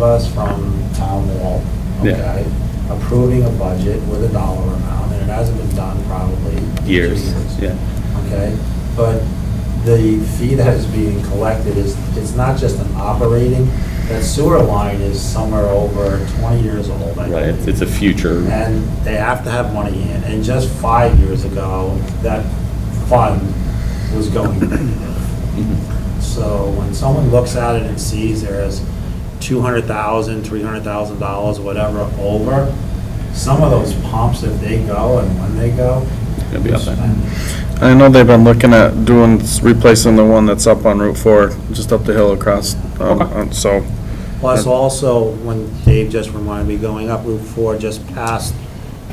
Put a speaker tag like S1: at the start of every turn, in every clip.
S1: us from Tom Wall,
S2: Yeah.
S1: okay? Approving a budget with a dollar amount, and it hasn't been done probably. two
S2: years, yeah.
S1: Okay, but the fee that is being collected is, it's not just an operating, that sewer line is somewhere over twenty years old, I
S2: Right, it's-
S1: believe.
S2: it's a future,
S1: And they have to have money in, and just five years ago, that fund was going negative. So when someone looks at it and sees there's $200,000, $300,000, whatever, over, some of those pumps, if they go and when they go.
S2: gonna be up there.
S3: I know they've been looking at doing, replacing the one that's up on Route 4, just up the hill across, um, um, so,
S1: Plus also, when Dave just reminded me, going up Route 4, just past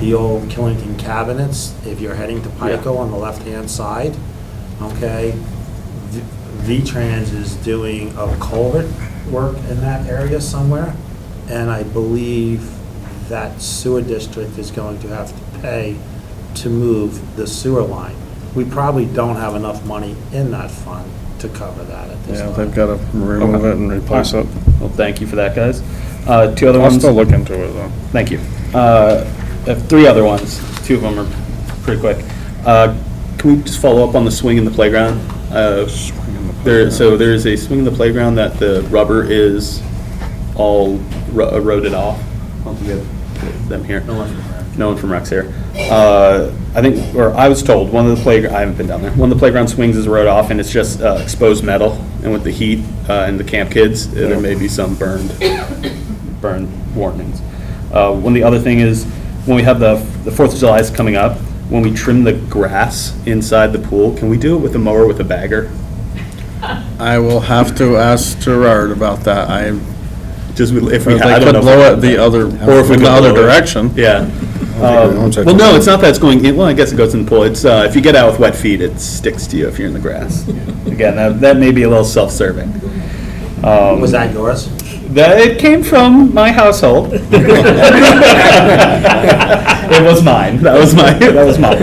S1: the old Killington Cabinets, if you're heading to Pico on the left-hand side, okay? V- V-Trans is doing a culvert work in that area somewhere, and I believe that sewer district is going to have to pay to move the sewer line. We probably don't have enough money in that fund to cover that at this
S3: yeah,
S1: time.
S3: they've got to remove it and replace it.
S2: Well, thank you for that, guys. Uh, Two other
S3: I'll
S2: ones.
S3: still look into it, though.
S2: Thank you. Uh, I have three other ones. Two of them are pretty quick. Uh, Can we just follow up on the swing in the playground? Uh, There, so there is a swing in the playground that the rubber is all ro- uh, eroded off. I don't think we have Them here.
S1: No one's aware.
S2: No one from Rex here. Uh, I think, or I was told, one of the playground, I haven't been down there, one of the playground swings is rode off and it's just uh, exposed metal. And with the heat uh, and the camp kids, uh, there may be some burned, burn warnings. Uh, One, the other thing is, when we have the, the Fourth of July is coming up, when we trim the grass inside the pool, can we do it with a mower with a bagger?
S3: I will have to ask Gerard about that. I,
S2: Just we- if we,
S3: they
S2: ha- I don't know.
S3: could
S2: if
S3: blow
S2: we-
S3: it the other,
S2: Or
S3: or
S2: if we
S3: in
S2: could
S3: the other
S2: blow it.
S3: direction.
S2: Yeah. Um,
S4: one's
S2: Well, no, it's not that it's going in, well, I guess it goes in the pool. It's, uh, if you get out with wet feet, it sticks to you if you're in the grass. Again, that, that may be a little self-serving. Um,
S1: Was that yours?
S2: That, it came from my household. It was mine. That was my, that was mine.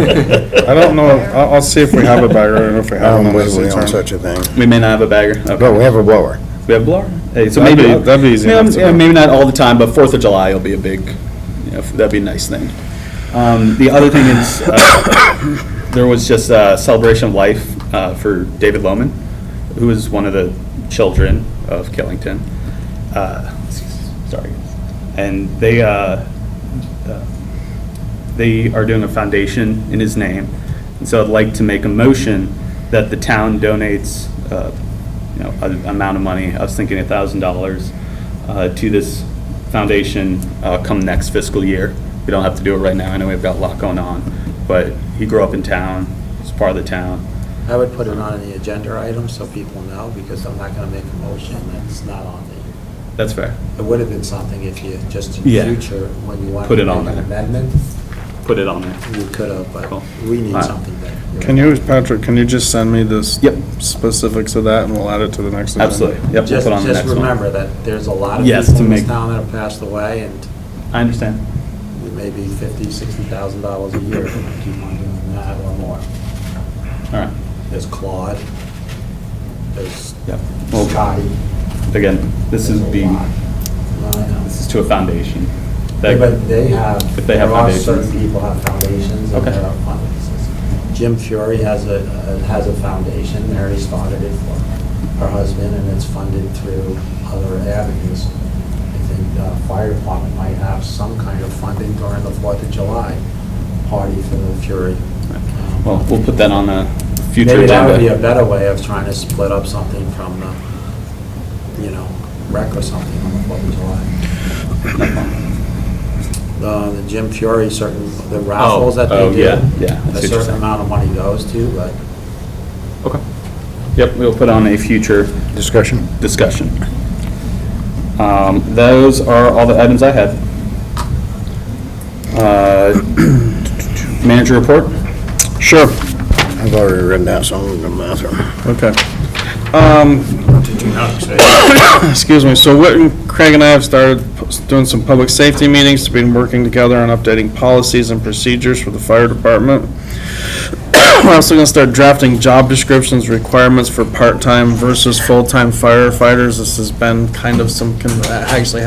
S3: I don't know, I'll, I'll see if we have a bagger, and if we have
S4: I'm
S3: one, then it's
S4: Wesley on
S3: returned.
S4: such a thing.
S2: We may not have a bagger.
S4: No, we
S2: Okay.
S4: have a blower.
S2: We have blower. Hey, so
S3: That'd
S2: maybe.
S3: be- that'd be easy
S2: yeah,
S3: enough to
S2: yeah,
S3: do.
S2: Maybe not all the time, but Fourth of July will be a big, you know, that'd be a nice thing. Um, the other thing is, uh, there was just a celebration of life, uh, for David Loman, who is one of the children of Killington. Uh, sorry. And they, uh, uh, they are doing a foundation in his name. And so I'd like to make a motion that the town donates, uh, you know, an amount of money, I was thinking a thousand dollars, uh, to this foundation uh, come next fiscal year. We don't have to do it right now, I know we've got a lot going on, but he grew up in town, he's part of the town.
S1: I would put it on the agenda item so people know, because I'm not gonna make a motion that's not on the,
S2: That's fair.
S1: it would have been something if you, just in
S2: Yeah.
S1: future, when you want
S2: Put
S1: to
S2: it
S1: make
S2: on
S1: an
S2: there.
S1: amendment,
S2: Put it on there.
S1: you could have,
S2: Cool.
S1: but we need
S2: Alright.
S1: something there.
S3: Can you, Patrick, can you just send me this?
S2: Yep.
S3: Specifics of that, and we'll add it to the next agenda?
S2: Absolutely, yep, we'll
S1: Just,
S2: put on the
S1: just
S2: next one.
S1: remember that there's a lot of
S2: Yes,
S1: people
S2: to
S1: in this
S2: make-
S1: town that have passed away, and
S2: I understand.
S1: maybe fifty, sixty thousand dollars a year, if we keep on doing that or more.
S2: All right,
S1: There's Claude, there's
S2: yep. Well,
S1: Scotty.
S2: again, this
S1: there's
S2: is
S1: a
S2: the,
S1: lot. I know.
S2: this is to a foundation.
S1: Yeah,
S2: That-
S1: But they have.
S2: If they have
S1: there are Certain
S2: foundations.
S1: people have foundations and
S2: Okay.
S1: there are fundraisers. Jim Fury has a, uh, has a foundation, Mary started it for her husband, and it's funded through other avenues. I think uh, fire department might have some kind of funding during the Fourth of July party for the Fury. Um,
S2: Well, we'll put that on a future
S1: Maybe that would be a
S2: agenda.
S1: better way of trying to split up something from the, you know, wreck or something on the Fourth of July. Uh, The Jim Fury, certain, the raffles that
S2: oh,
S1: they do.
S2: yeah,
S1: A
S2: yeah, that's
S1: certain
S2: interesting.
S1: amount of money goes to, but
S2: Okay. Yep, we'll put on a future
S4: Discussion?
S2: discussion. Um, Those are all the items I had. Uh, Manager report?
S3: Sure.
S4: I've already written down some of them, Matthew.
S3: Okay. Um, Excuse me, so Whit and Craig and I have started p- doing some public safety meetings, been working together on updating policies and procedures for the fire department. We're also gonna start drafting job descriptions, requirements for part-time versus full-time firefighters. This has been kind of some, con- Uh, actually